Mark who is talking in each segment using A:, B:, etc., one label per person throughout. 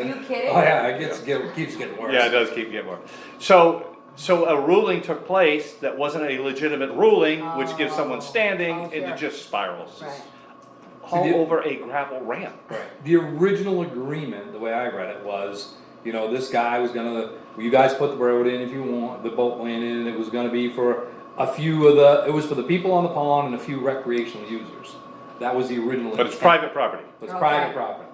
A: Are you kidding?
B: Oh yeah, it gets, get- keeps getting worse.
C: Yeah, it does keep getting more. So, so a ruling took place that wasn't a legitimate ruling, which gives someone standing,
A: Oh,
C: and it
A: sure.
C: just spirals.
A: Right.
C: All
B: Did you-
C: over a gravel ramp.
B: Right. The original agreement, the way I read it, was, you know, this guy was gonna, well, you guys put the road in if you want, the boat land in, and it was gonna be for a few of the, it was for the people on the pond and a few recreational users. That was the original.
C: But it's
B: intent.
C: private property.
B: It's
A: Okay.
B: private property.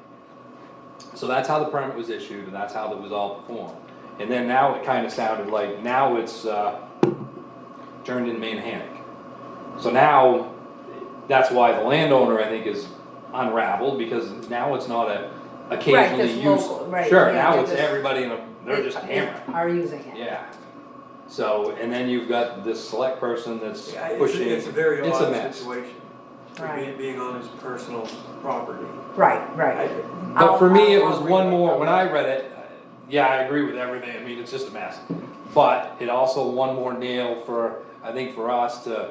B: So that's how the permit was issued, and that's how it was all performed. And then now it kinda sounded like, now it's, uh, turned into Manhattan. So now, that's why the landowner, I think, is unraveled, because now it's not a occasionally
A: this
B: used.
A: local- right,
B: Sure,
A: yeah,
B: now
A: they're
B: it's
A: just-
B: everybody in a, they're
A: They-
B: just
A: they
B: hammering,
A: Are using it.
B: yeah. So, and then you've got this select person that's
D: Yeah, it's,
B: pushing.
D: a- it's a very
B: It's a
D: odd
B: mess.
D: situation, being,
A: Right,
D: being on his personal property.
A: right,
D: I-
A: right.
B: But for me, it was
A: I'll- I'll
B: one
A: read
B: more, when I read it, uh, yeah, I agree with everything, I mean, it's just a mess. But it also one more nail for, I think for us to,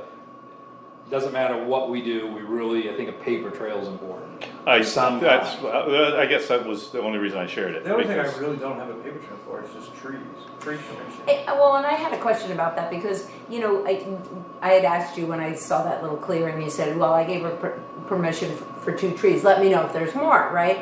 B: doesn't matter what we do, we really, I think a paper trail is important.
C: I,
B: Some
C: that's,
B: kind.
C: uh, I guess that was the only reason I shared it.
D: The only thing I
C: because-
D: really don't have a paper trail for is just trees, tree commission.
A: Eh, Well, and I had a question about that because, you know, I, I had asked you when I saw that little clearing, you said, well, I gave her per- permission f- for two trees, let me know if there's more, right?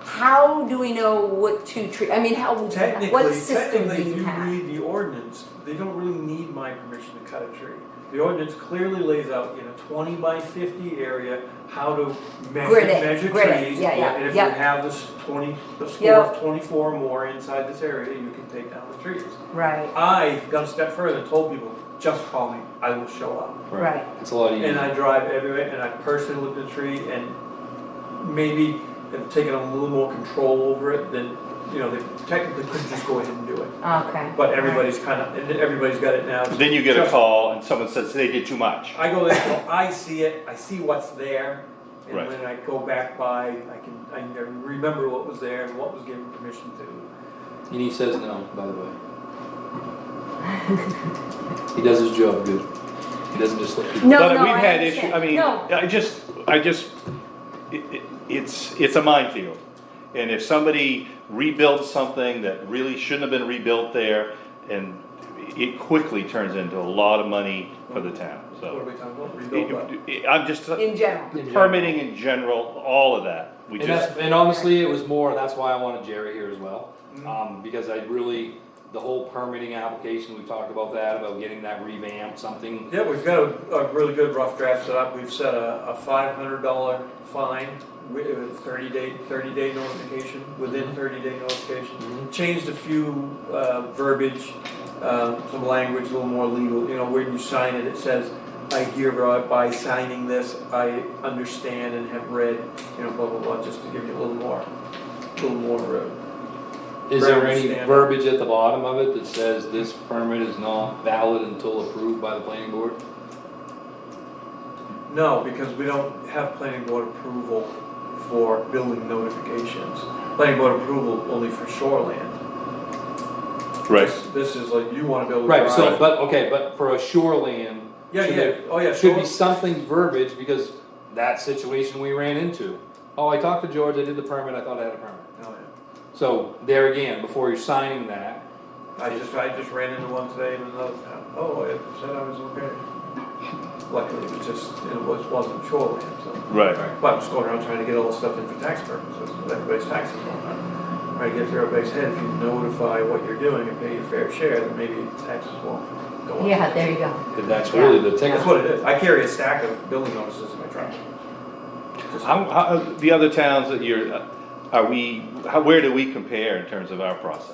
A: How do we know what two tree, I mean, how, what
D: Technically,
A: system do
D: technically, if
A: you
D: you
A: have?
D: read the ordinance, they don't really need my permission to cut a tree. The ordinance clearly lays out in a twenty by fifty area, how to measure,
A: Grid it,
D: measure trees.
A: grid it, yeah, yeah,
D: And if you
A: yeah.
D: have this twenty, the score
A: Yeah.
D: of twenty-four or more inside this area, you can take down the trees.
A: Right,
D: I got a step further and told people, just call me, I will show up.
A: Right.
B: It's a lot
C: Mm-hmm.
D: And
B: easier.
D: I drive everywhere, and I personally look at the tree, and maybe have taken a little more control over it than, you know, they technically could just go ahead and do it.
A: okay.
D: But everybody's kind of, and everybody's got it now.
C: Then you get a
D: Just-
C: call and someone says they did too much.
D: I go there, so I see it, I see what's there, and
C: Right.
D: when I go back by, I can, I can remember what was there and what was given permission to.
B: And he says no, by the way. He does his job good. He doesn't just let people.
A: No,
C: But
A: no,
C: we've
A: I
C: had
A: understand.
C: issue- I mean,
A: No,
C: I just, I just, it, it, it's, it's a minefield. And if somebody rebuilds something that really shouldn't have been rebuilt there, and it quickly turns into a lot of money for the town,
D: What are
C: so.
D: we talking about? Rebuild that.
C: It- it- I'm just,
A: in general,
C: permitting in general, all of that, we
B: And that's,
C: just,
B: and honestly, it was more, that's why I wanted Jerry here as well, um, because I really, the whole permitting application, we talked about that, about getting that revamped, something.
D: Yeah, we've got a, a really good rough draft set up, we've set a, a five hundred dollar fine with a thirty day, thirty day notification, within thirty day notification. Changed a few, uh, verbiage, uh, some language, a little more legal, you know, when you sign it, it says, I hereby signing this, I understand and have read, you know, blah, blah, blah, just to give you a little more, a little more, uh,
B: Is there any
D: Understand.
B: verbiage at the bottom of it that says this permit is not valid until approved by the planning board?
D: no, because we don't have planning board approval for building notifications. Planning board approval only for shoreland.
C: right.
D: This- This is like, you wanna build a
B: Right, so,
D: garage.
B: but, okay, but for a shoreline.
D: Yeah,
B: should
D: yeah,
B: there-
D: oh yeah,
B: Should
D: sure.
B: be something verbiage, because that situation we ran into. Oh, I talked to George, I did the permit, I thought I had a permit.
D: Oh, yeah.
B: So, there again, before you're signing that,
D: I just, I just ran into one today in another town, oh, it said I was okay. Luckily, it was just, it was, wasn't shoreline, so,
C: Right,
D: but I'm just going around trying to get all the stuff in for tax purposes, with everybody's taxes going up. Trying to get through everybody's head, if you notify what you're doing and pay your fair share, then maybe taxes won't go up.
A: yeah, there you go.
B: that's really the ticket.
D: That's what it is, I carry a stack of building notices in my truck. Just-
C: how, how, the other towns that you're, are we, how, where do we compare in terms of our process?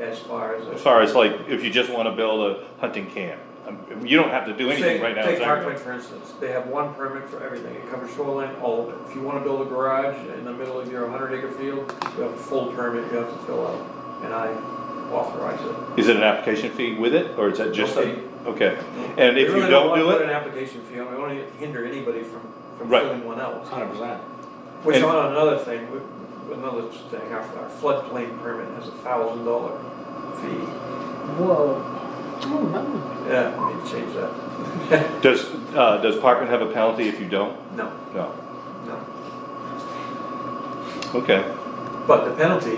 D: As far as. a-
C: As far as like, if you just wanna build a hunting camp, um, you don't have to do anything
D: Say-
C: right now.
D: Take
C: is that
D: Parkway
C: right?
D: for instance, they have one permit for everything, it covers shoreline, all of it. If you wanna build a garage in the middle of your hundred acre field, you have a full permit you have to fill out, and I authorize it.
C: Is it an application fee with it, or is that just
D: Okay.
C: a, okay, and if
D: We
C: you
D: really
C: don't
D: wanna
C: do
D: Put an
C: it,
D: application fee on, we don't wanna hinder anybody from, from
C: Right.
D: filling one out.
B: Hundred percent.
D: Which
C: And-
D: on another thing, we- another thing, our our floodplain permit has a thousand dollar fee.
A: Whoa.
D: Yeah, I need to change that.
C: does, uh, does Parkman have a penalty if you don't?
D: No,
C: No,
D: no.
C: okay,
D: But the penalty